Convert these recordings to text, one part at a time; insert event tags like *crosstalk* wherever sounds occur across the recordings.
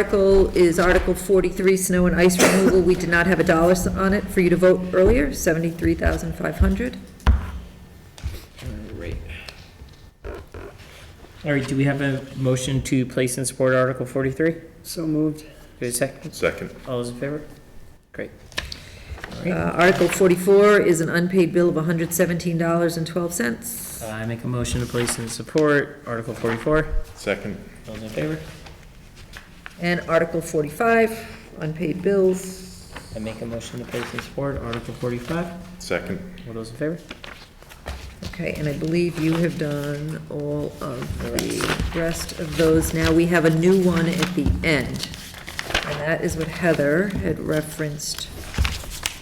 article is Article 43, snow and ice removal. We did not have a dollar s- on it for you to vote earlier, 73,500. Right. All right, do we have a motion to place and support Article 43? Do So moved. we have a second? Second. All those in favor? Great. Uh, Article 44 is an unpaid bill of $117.12. I make a motion to place and support Article 44. Second. All Those in favor? And Article 45, unpaid bills. I make a motion to place and support Article 45. Second. All those in favor? Okay, and I believe you have done all of the rest of those. Now we have a new one at the end. And that is what Heather had referenced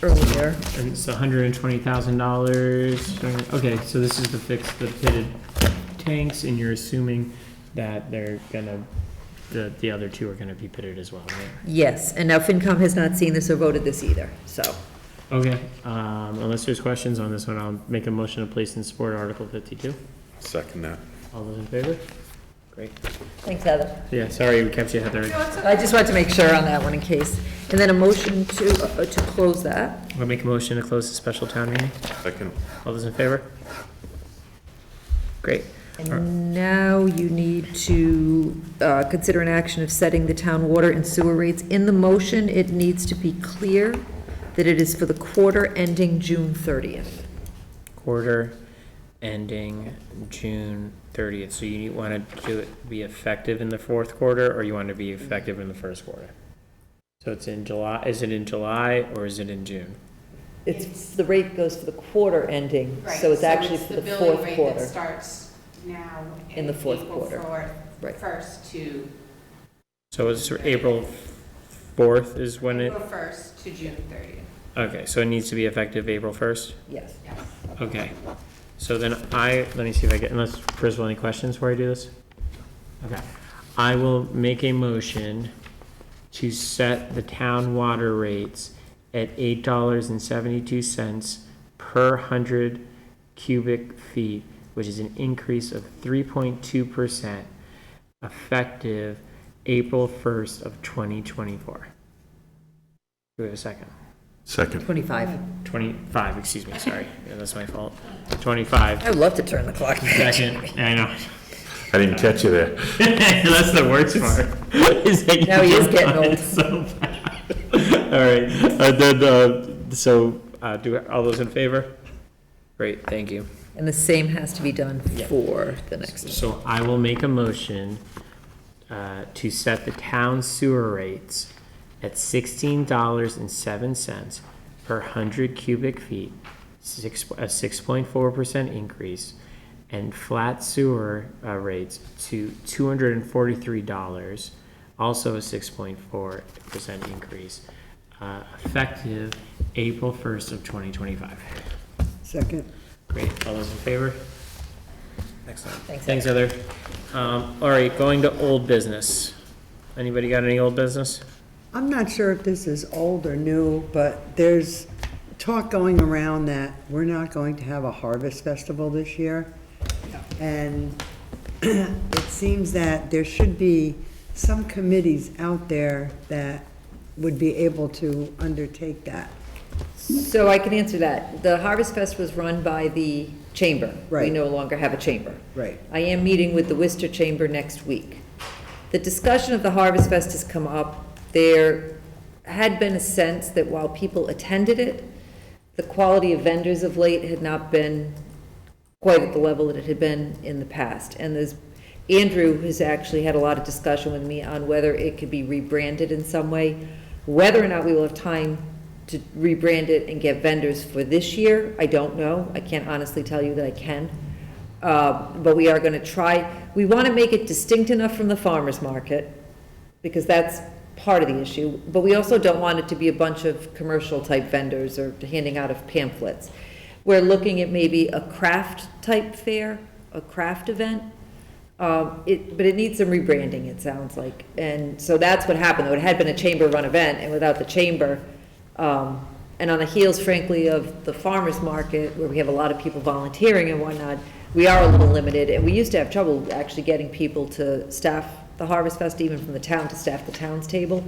earlier. And it's $120,000. Okay, so this is to fix the pitted tanks, and you're assuming that they're gonna, the, the other two are gonna be pitted as well, right? Yes, and now FinCom has not seen this or voted this either, so. Okay, um, unless there's questions on this one, I'll make a motion to place and support Article 52. Second that. All those in favor? Great. Thanks, Heather. Yeah, sorry, we kept you, Heather. I just wanted to make sure on that one in case. And then a motion to, uh, to close that. I'll make a motion to close the special town meeting. Second. All those in favor? Great. And now you need to uh, consider an action of setting the town water and sewer rates. In the motion, it needs to be clear that it is for the quarter ending June 30th. Quarter ending June thirtieth, so you want to do it, be effective in the fourth quarter, or you want to be effective in the first quarter? So it's in July, is it in July or is it in June? It's, the rate goes for the quarter ending, Right, so it's actually for the billing fourth rate that quarter. Starts now. In the fourth quarter. Right. First to, So it's April fourth is when it, April first to June thirtieth, okay, so it needs to be effective April first? Yes. yes. Okay, so then I, let me see if I get, unless, first of all, any questions before I do this? Okay, I will make a motion to set the town water rates at eight dollars and seventy-two cents per hundred cubic feet, which is an increase of three point two percent, effective April first of twenty twenty-four. Do we have a second? Second. 25. 25, excuse me, sorry. *laughs* Yeah, that's my fault. 25, I'd love to turn the clock back. second, I know. *laughs* I didn't catch you there. That's the worst part. *laughs* is that you Now he is just getting *laughs* got it old. so bad. *laughs* All right, uh, then, uh, so, uh, do, all those in favor? Great, thank you. And the same has to be done for the next. So I will make a motion uh, to set the town sewer rates at sixteen dollars and seven cents per hundred cubic feet, six, a six point four percent increase, and flat sewer uh, rates to two hundred and forty-three dollars, also a six point four percent increase, uh, effective April first of twenty twenty-five. Second. Great, all those in favor? Excellent. Thanks, Thanks, Heather. Um, all right, going to old business. Anybody got any old business? I'm not sure if this is old or new, but there's talk going around that we're not going to have a harvest festival this year. And *clears throat* it seems that there should be some committees out there that would be able to undertake that. So I can answer that. The Harvest Fest was run by the chamber. We Right. no longer have a chamber. Right. I am meeting with the Worcester Chamber next week. The discussion of the Harvest Fest has come up. There had been a sense that while people attended it, the quality of vendors of late had not been quite at the level that it had been in the past. And there's, Andrew has actually had a lot of discussion with me on whether it could be rebranded in some way. Whether or not we will have time to rebrand it and get vendors for this year, I don't know. I can't honestly tell you that I can. Uh, But we are going to try, we want to make it distinct enough from the farmer's market, because that's part of the issue. But we also don't want it to be a bunch of commercial-type vendors or handing out of pamphlets. We're looking at maybe a craft-type fair, a craft event. Um, It, but it needs some rebranding, it sounds like. And so that's what happened, though. It had been a chamber-run event, and without the chamber, um, and on the heels frankly of the farmer's market, where we have a lot of people volunteering and whatnot, we are a little limited, and we used to have trouble actually getting people to staff the Harvest Fest even from the town to staff the town's table.